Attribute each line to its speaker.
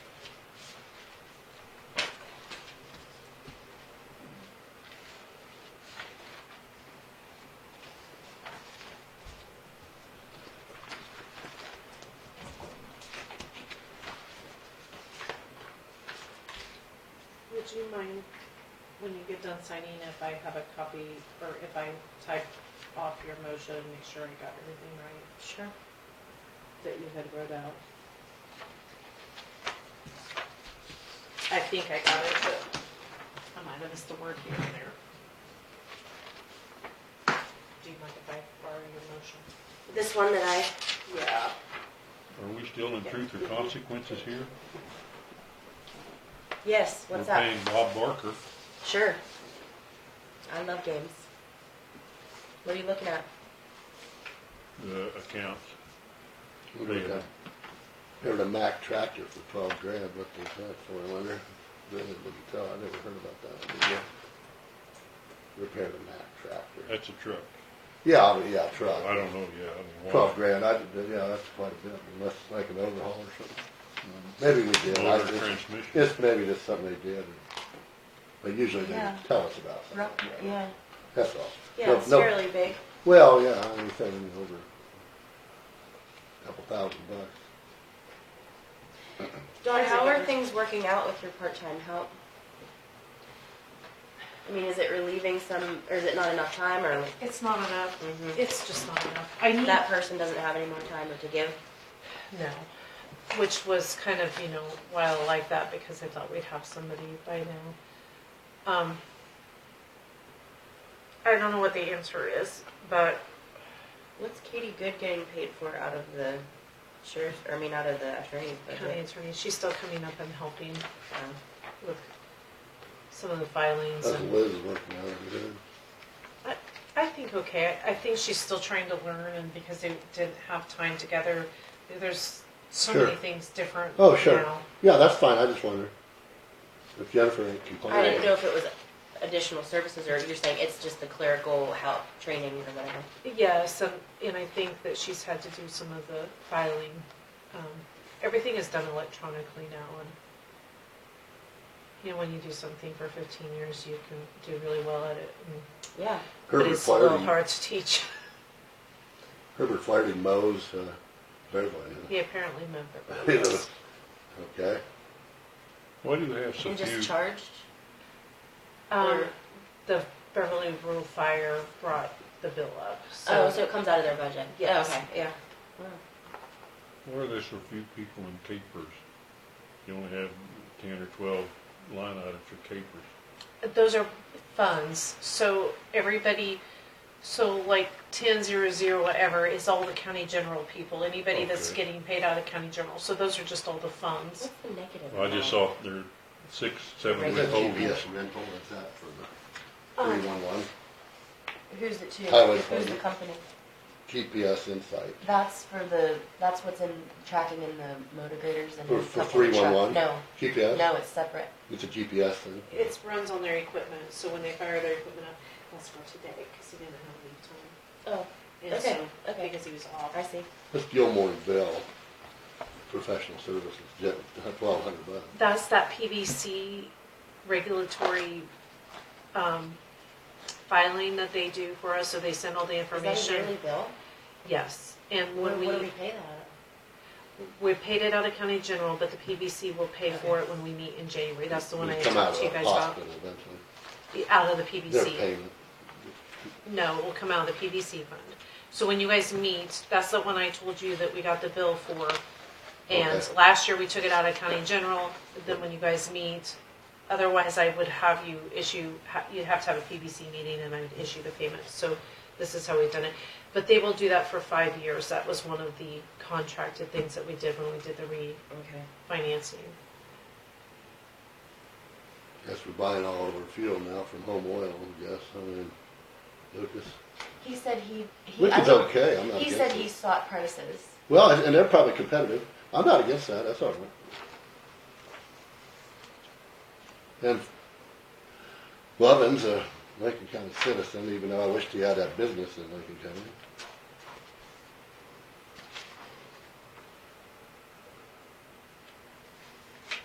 Speaker 1: would you mind, when you get done signing, if I have a copy, or if I type off your motion, make sure I got everything right
Speaker 2: Sure.
Speaker 1: that you had wrote out? I think I got it, but I might have missed a word here and there. Do you mind if I borrow your motion?
Speaker 2: This one that I,
Speaker 1: Yeah.
Speaker 3: Are we still in truth or consequences here?
Speaker 2: yes, what's up?
Speaker 3: We're paying Bob Barker.
Speaker 2: Sure. I love games. What are you looking at?
Speaker 3: the accounts.
Speaker 4: We got a- Heard a Mack tractor for twelve grand, what was that for, Leonard? Really, didn't tell, I never heard about that. one. Repaired a Mack tractor.
Speaker 3: That's a truck.
Speaker 4: Yeah, I mean, yeah,
Speaker 3: Well, Uh, I
Speaker 4: truck.
Speaker 3: don't know, yeah, I mean,
Speaker 4: Twelve
Speaker 3: why?
Speaker 4: grand, I did, yeah, that's quite a bit, unless like an overhaul or something. Maybe we did, I
Speaker 3: Mm-hmm. Motor
Speaker 4: just,
Speaker 3: transmission.
Speaker 4: it's maybe just something they did. But usually they
Speaker 2: Yeah.
Speaker 4: tell us about something. like that.
Speaker 2: Yeah.
Speaker 4: That's all.
Speaker 2: Yeah,
Speaker 4: No-
Speaker 2: it's
Speaker 4: no-
Speaker 2: fairly big.
Speaker 4: Well, yeah, anything over a couple thousand bucks.
Speaker 2: Dawn,
Speaker 1: How's it
Speaker 2: how are
Speaker 1: going?
Speaker 2: things working out with your part-time help? I mean, is it relieving some, or is it not enough time, or
Speaker 1: It's not enough.
Speaker 2: Mhm.
Speaker 1: It's just not enough. I need
Speaker 2: that person doesn't have any more time to give?
Speaker 1: No, which was kind of, you know, why I like that because I thought we'd have somebody by now. Um, I don't know what the answer is, but
Speaker 2: What's Katie Good getting paid for out of the sheriff, or I mean, out of the attorney's
Speaker 1: county
Speaker 2: budget?
Speaker 1: attorney, she's still coming up and helping
Speaker 2: Um,
Speaker 1: with some of the filings
Speaker 4: That's
Speaker 1: and
Speaker 4: Liz working on it, good.
Speaker 1: I think okay. I I think she's still trying to learn and because they didn't have time together, there's so many
Speaker 4: Sure.
Speaker 1: things different
Speaker 4: Oh, sure.
Speaker 1: now.
Speaker 4: Yeah, that's fine, I just wonder if Jennifer ain't
Speaker 2: I didn't know
Speaker 4: complaining.
Speaker 2: if it was additional services, or you're saying it's just the clerical help, training, or whatever.
Speaker 1: Yes, and, and I think that she's had to do some of the filing. Um, everything is done electronically now and, you know, when you do something for fifteen years, you can do really well at it. and-
Speaker 2: Yeah.
Speaker 1: But
Speaker 4: Herbert
Speaker 1: it's a little
Speaker 4: Flaherty,
Speaker 1: hard to teach.
Speaker 4: Herbert Flaherty mows, uh, Beverly,
Speaker 1: He apparently meant that.
Speaker 4: huh? Okay,
Speaker 3: Why do they have so
Speaker 2: And
Speaker 3: few?
Speaker 2: just charged?
Speaker 1: Um, the Beverly Rural Fire brought the bill up,
Speaker 2: Oh, so
Speaker 1: so.
Speaker 2: it comes out of their budget? Oh,
Speaker 1: Yes.
Speaker 2: Okay, yeah. Wow.
Speaker 3: Why are there so few people in capers? You only have ten or twelve line items for capers.
Speaker 1: Those are funds, so everybody, so like ten zero zero whatever is all the county general people, anybody that's
Speaker 3: Okay.
Speaker 1: getting paid out of county general, so those are just all the funds.
Speaker 2: What's the negative?
Speaker 3: I just
Speaker 2: about
Speaker 3: saw there are six, seven
Speaker 4: is
Speaker 2: Regular
Speaker 4: that
Speaker 3: withholdings.
Speaker 4: GPS rental, is that for the
Speaker 1: Um,
Speaker 4: three-one-one?
Speaker 2: it? Who's it to?
Speaker 4: Highway
Speaker 2: Who's the
Speaker 4: Department.
Speaker 2: company?
Speaker 4: GPS Insight,
Speaker 2: That's for the, that's what's in tracking in the motivators and.
Speaker 4: For-
Speaker 2: the
Speaker 4: for
Speaker 2: couple of
Speaker 4: 311?
Speaker 2: truck- No,
Speaker 4: GPS,
Speaker 2: no, it's separate.
Speaker 4: it's a GPS thing.
Speaker 1: It runs on their equipment, so when they fire their equipment up, that's for today, because he didn't have leave time.
Speaker 2: Oh,
Speaker 1: And
Speaker 2: Okay,
Speaker 1: so-
Speaker 2: okay.
Speaker 1: Because he was off.
Speaker 2: I see.
Speaker 4: That's Gilmore and Bell, professional services, twelve hundred bucks.
Speaker 1: That's that PVC regulatory, um, filing that they do for us, so they send all the
Speaker 2: Is that a yearly
Speaker 1: information.
Speaker 2: bill?
Speaker 1: Yes, and
Speaker 2: What
Speaker 1: when
Speaker 2: what do we
Speaker 1: we,
Speaker 2: pay that? out
Speaker 1: we paid it out of county general, but the PVC will pay for it when we meet in January. That's the one I
Speaker 4: It'd come
Speaker 1: talked
Speaker 4: out of
Speaker 1: to you
Speaker 4: the
Speaker 1: guys about.
Speaker 4: hospital eventually,
Speaker 1: Out of the
Speaker 4: their
Speaker 1: PVC.
Speaker 4: payment.
Speaker 1: No, it will come out of the PVC fund. So when you guys meet, that's the one I told you that we got the bill for. And
Speaker 4: Okay.
Speaker 1: last year, we took it out of county general, then when you guys meet, otherwise I would have you issue, ha- you'd have to have a PVC meeting and I would issue the payment. So this is how we've done it. But they will do that for five years. That was one of the contracted things that we did when we did the re,
Speaker 2: of? Okay.
Speaker 1: financing.
Speaker 4: Guess we're buying all of our fuel now from home oil, I guess, I mean, Lucas,
Speaker 2: He said he. he-
Speaker 4: which
Speaker 2: I
Speaker 4: is
Speaker 2: don't-
Speaker 4: okay, I'm not
Speaker 2: He said
Speaker 4: against
Speaker 2: he
Speaker 4: it.
Speaker 2: sought prices.
Speaker 4: Well, and- and they're probably competitive, I'm not against that, that's all right. And Lovin's a Lincoln County citizen, even though I wished he had that business in Lincoln County.